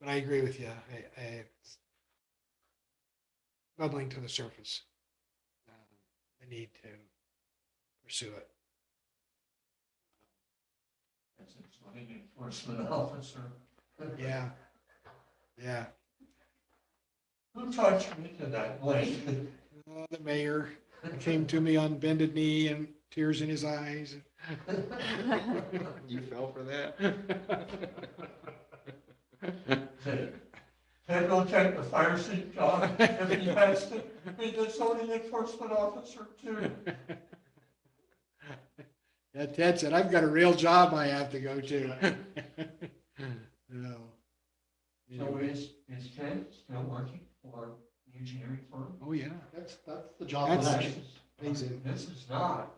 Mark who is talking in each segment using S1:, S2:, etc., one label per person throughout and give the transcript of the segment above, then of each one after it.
S1: But I agree with you. I, I, it's bubbling to the surface. Um, The need to pursue it.
S2: As an enforcement officer.
S1: Yeah. Yeah.
S2: Who taught you into that lane?
S1: Uh, The mayor came to me on bended knee and tears in his eyes.
S3: You fell for that?
S2: Then go check the fire seat, John, if he has to, be the zoning enforcement officer too.
S1: Yeah, Ted said, I've got a real job I have to go to. No.
S2: So
S1: Anyway,
S2: is, is Ted still working for the engineering firm?
S1: Oh, yeah.
S4: That's, that's the job. of
S1: That's-
S4: that.
S1: He's in.
S2: This is not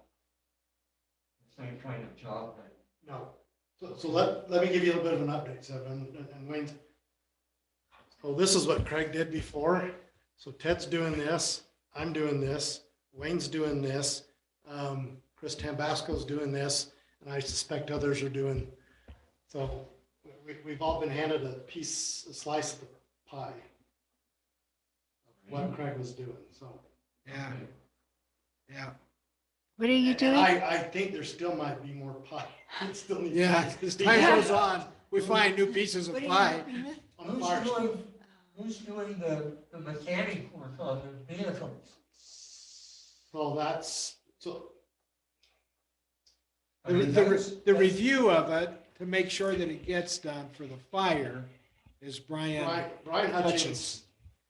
S2: the same kind of job that
S4: No. So, so let, let me give you a little bit of an update, Seven, and- and Wayne's. So this is what Craig did before. So Ted's doing this, I'm doing this, Wayne's doing this, um, Chris Tambasco's doing this, and I suspect others are doing. So we, we've all been handed a piece, a slice of the pie,
S2: Mm-hmm.
S4: what Craig was doing, so.
S1: Yeah, yeah.
S5: What are you
S4: And
S5: doing?
S4: I, I think there still might be more pie. It still needs.
S1: Yeah, as time goes on, we find new pieces of
S5: What are you
S1: pie.
S5: doing?
S4: On the fire.
S2: Who's doing, who's doing the, the mechanic work on the vehicles?
S4: So that's, so
S2: I
S1: The,
S2: mean,
S1: the,
S2: that's-
S1: re- the
S2: that's-
S1: review of it to make sure that it gets done for the fire is Brian.
S4: Brian, Brian
S1: Hutchins.
S4: Hutchins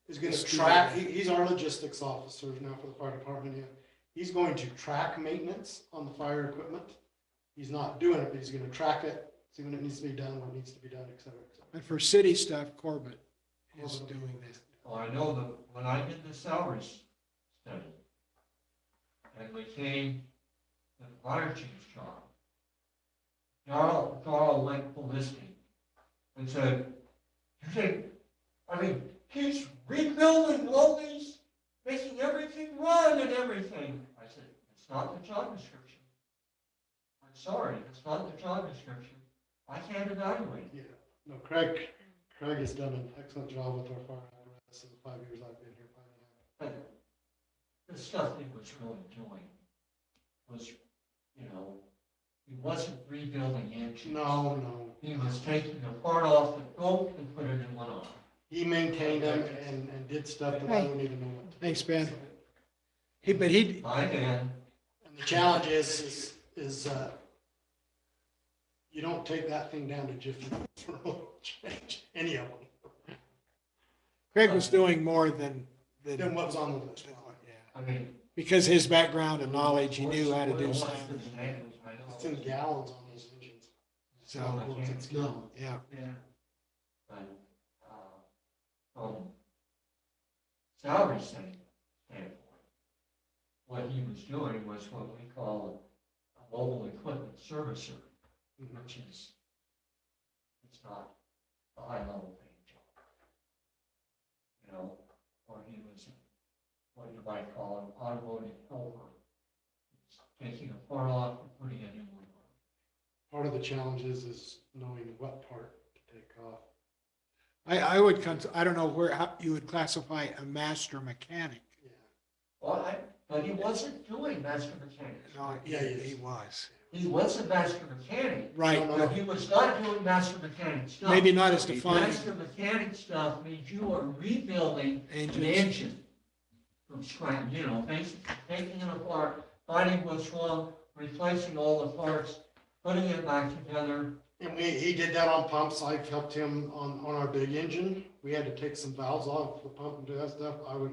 S4: is gonna
S1: Let's do
S4: track,
S1: that.
S4: he, he's our logistics officer now for the fire department, yeah. He's going to track maintenance on the fire equipment. He's not doing it, but he's gonna track it, see when it needs to be done, what needs to be done, et cetera, et cetera.
S1: And for city stuff, Corbett is doing that.
S2: Well, I know that when I did the salaries study, and became the fire chief's job, Darrell, Darrell went ballistic and said, you think, I mean, he's rebuilding all these, making everything run and everything. I said, it's not the job description. I'm sorry, it's not the job description. I can't evaluate it.
S4: Yeah, no, Craig, Craig has done an excellent job with our fire apparatus in the five years I've been here. five and a half.
S2: But the stuff he was really doing was, you know, he wasn't rebuilding engines.
S4: No, no,
S2: He was taking a part off the boat and putting it in one on.
S4: he maintained them and, and did stuff that I don't even know what. to do.
S1: Thanks, Ben. He, but he,
S2: My man,
S4: And the challenge is, is, is, uh, you don't take that thing down to Jiffy Lube for oil change, any of them,
S1: Craig was doing more than, than.
S4: than what was on the list.
S1: Yeah.
S2: I mean.
S1: Because his background and knowledge, he knew how to do
S2: what's-
S1: stuff.
S2: what's the name? I don't know.
S4: It's in gallons on those engines.
S1: So,
S2: I can't-
S4: No.
S1: yeah,
S2: Yeah. But, uh, um, salary stand- standpoint, what he was doing was what we call a mobile equipment servicer, which is, it's not a high level paying job. You know, or he was, what you might call an automotive helper, He's taking a part off and putting it in one.
S4: Part of the challenge is, is knowing what part to take off.
S1: I, I would, cons- I don't know where, how you would classify a master mechanic.
S4: Yeah.
S2: Well, I, but he wasn't doing master mechanics.
S1: No, he,
S4: Yeah, he is.
S1: he was.
S2: He was a master mechanic,
S1: Right,
S4: No, no,
S2: but
S1: but
S2: he was not doing master mechanic stuff.
S1: maybe not as defined.
S2: Master mechanic stuff means you are rebuilding an
S1: Engines,
S2: engine from scratch, you know, basically taking it apart, finding what's wrong, replacing all the parts, putting it back together.
S4: And we, he did that on pumps, I helped him on, on our big engine, we had to take some valves off the pump and do that stuff, I would,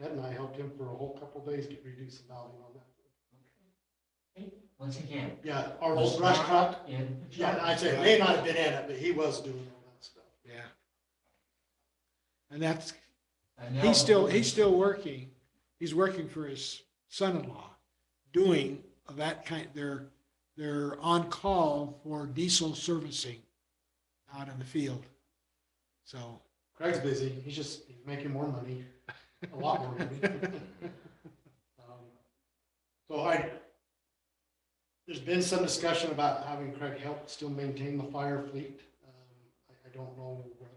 S4: Ted and I helped him for a whole couple of days to reduce the valving on that.
S2: Once again.
S4: Yeah, our old brush truck,
S2: in the
S4: Yeah,
S2: truck.
S4: and I'd say it may not have been in it, but he was doing all that stuff.
S1: yeah. And that's,
S2: And now-
S1: he's still, he's still working, he's working for his son-in-law, doing that kind, they're, they're on call for diesel servicing out in the field. So,
S4: Craig's busy, he's just he's making more money, a lot more money. Um, So I, there's been some discussion about having Craig help still maintain the fire fleet. Um, I, I don't know whether